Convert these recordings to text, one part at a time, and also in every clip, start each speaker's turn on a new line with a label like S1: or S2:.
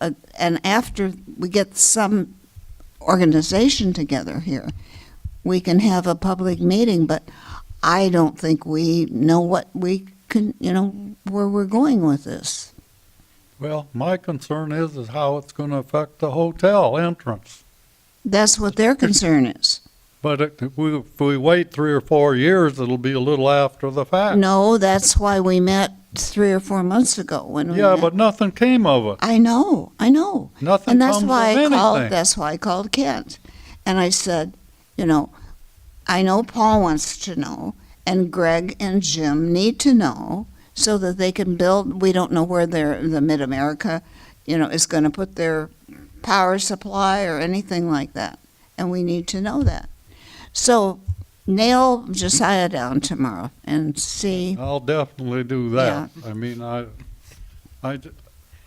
S1: uh, and after we get some organization together here, we can have a public meeting, but I don't think we know what we can, you know, where we're going with this.
S2: Well, my concern is, is how it's gonna affect the hotel entrance.
S1: That's what their concern is.
S2: But it- if we, if we wait three or four years, it'll be a little after the fact.
S1: No, that's why we met three or four months ago when we
S2: Yeah,
S1: met.
S2: but nothing came of it.
S1: I know, I know.
S2: Nothing
S1: and
S2: comes
S1: that's
S2: of
S1: why I called.
S2: anything.
S1: That's why I called Kent, and I said, you know, I know Paul wants to know, and Greg and Jim need to know, so that they can build. We don't know where their the Mid America, you know, is going to put their power supply or anything like that, and we need to know that. So nail Josiah down tomorrow and see.
S2: I'll definitely do that. I mean, I, I, ju-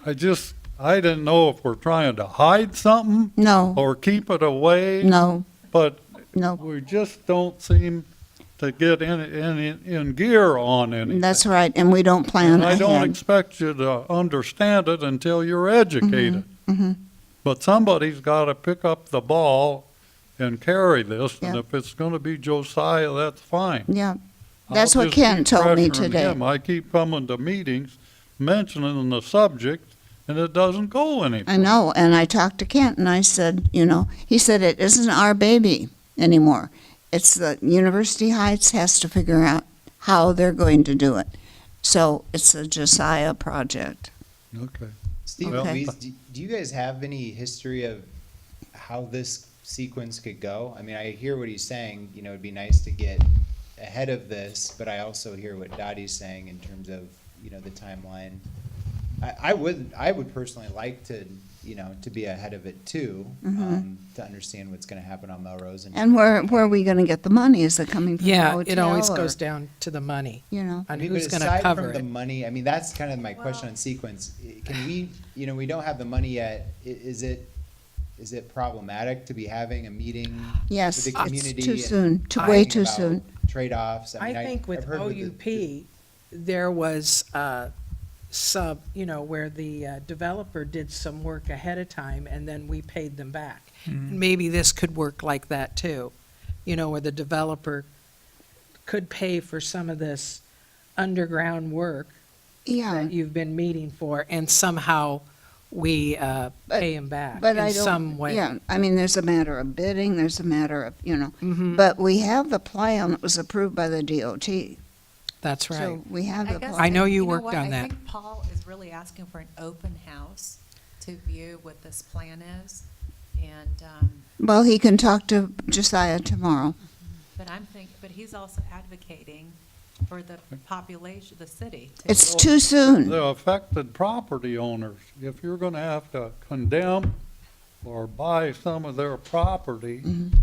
S2: I just, I didn't know if we're trying to hide something
S1: No,
S2: or keep it away,
S1: no,
S2: but
S1: no.
S2: we just don't seem to get in, in, in gear on anything.
S1: That's right, and we don't plan
S2: And I don't
S1: ahead.
S2: expect you to understand it until you're educated.
S1: Mhm.
S2: But somebody's got to pick up the ball and carry this, and
S1: Yeah.
S2: if it's going to be Josiah, that's fine.
S1: Yeah.
S2: I'll
S1: That's what
S2: just
S1: Ken
S2: keep
S1: told me
S2: pressuring
S1: today.
S2: him. I keep coming to meetings, mentioning the subject, and it doesn't go
S1: I
S2: anywhere.
S1: know, and I talked to Kent, and I said, you know, he said it isn't our baby anymore. It's the University Heights has to figure out how they're going to do it. So it's a Josiah project.
S2: Okay.
S3: Steve,
S1: Okay.
S3: Louise, do, do you guys have any history of how this sequence could go? I mean, I hear what he's saying, you know, it'd be nice to get ahead of this, but I also hear what Dottie's saying in terms of, you know, the timeline. I, I would, I would personally like to, you know, to be ahead of it too, um, to understand what's gonna happen on Melrose and.
S1: And where where are we going to get the money? Is it coming from the
S4: Yeah,
S1: hotel?
S4: it always
S1: or-
S4: goes down to the money
S1: You know,
S4: on
S3: I mean,
S4: who's
S3: but
S4: going
S3: aside
S4: to
S3: from
S4: cover
S3: The
S4: it.
S3: money, I mean, that's kind of my question on sequence. I- Can we, you know, we don't have the money yet. I- Is it, is it problematic to be having a meeting?
S1: yes,
S3: With the
S1: it's
S3: community
S1: too
S3: and
S1: soon, too,
S4: I
S1: way
S3: talking
S1: too
S3: about
S1: soon.
S3: Trade-offs.
S4: I
S3: mean,
S4: think
S3: I've
S4: with
S3: heard the-
S4: OUP, there was uh, sub, you know, where the uh, developer did some work ahead of time and then we paid them back. Maybe this could work like that too, you know, where the developer could pay for some of this underground work
S1: Yeah,
S4: that you've been meeting for and somehow we uh,
S1: But-
S4: pay them back
S1: but I
S4: in
S1: don't.
S4: some way.
S1: Yeah, I mean, there's a matter of bidding. There's a matter of you know,
S4: Mm-hmm.
S1: but we have the plan that was approved by the DOT.
S4: That's right.
S1: So we have
S5: I
S1: the
S5: guess-
S1: plan.
S4: I know you
S5: know
S4: worked
S5: what?
S4: on that.
S5: I think Paul is really asking for an open house to view what this plan is. And, um,
S1: Well, he can talk to Josiah tomorrow.
S5: but I'm think, but he's also advocating for the population, the city. to-
S1: It's too soon.
S2: The affected property owners, if you're going to have to condemn or buy some of their property,
S1: Mm-hmm.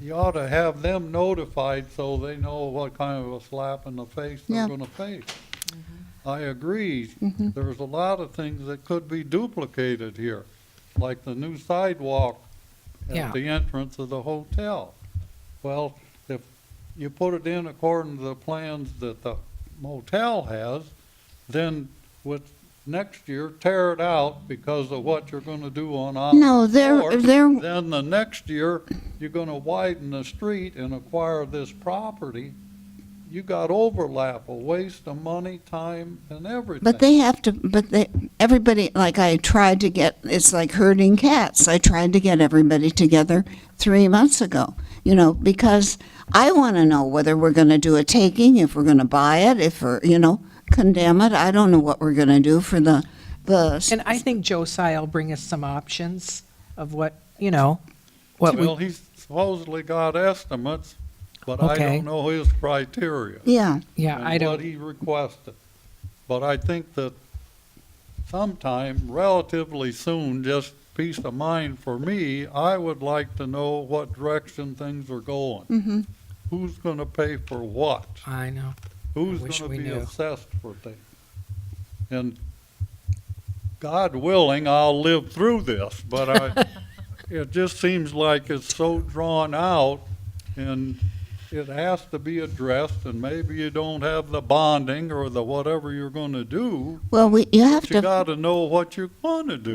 S2: you ought to have them notified so they know what kind of a slap in the face
S1: Yeah.
S2: they're going to face. I agree,
S1: Mhm.
S2: there's a lot of things that could be duplicated here, like the new sidewalk
S4: Yeah.
S2: at the entrance of the hotel. Well, if you put it in according to the plans that the motel has, then with next year, tear it out because of what you're gonna do on Osborne.
S1: No, they're-
S2: Court.
S1: they're-
S2: Then the next year, you're gonna widen the street and acquire this property. You got overlap, a waste of money, time, and everything.
S1: But they have to, but they, everybody, like I tried to get, it's like herding cats. I tried to get everybody together three months ago, you know, because I want to know whether we're going to do a taking, if we're going to buy it, if we're, you know, condemn it. I don't know what we're going to do for the, the,
S4: And I think Josiah will bring us some options of what, you know, what we,
S2: Well, he's supposedly got estimates, but I
S4: Okay.
S2: don't know his criteria.
S1: yeah,
S4: yeah, I
S2: and what
S4: don't,
S2: he requested. But I think that sometime relatively soon, just peace of mind for me, I would like to know what direction things are going.
S4: Mm-hmm.
S1: Mhm.
S2: Who's gonna pay for what?
S4: I know.
S2: Who's
S4: wish
S2: gonna
S4: we
S2: be
S4: knew.
S2: assessed for things? And God willing, I'll live through this, but I, it just seems like it's so drawn out and it has to be addressed, and maybe you don't have the bonding or the whatever you're gonna do,
S1: Well, we, you have
S2: but
S1: to.
S2: you gotta know what you're gonna do.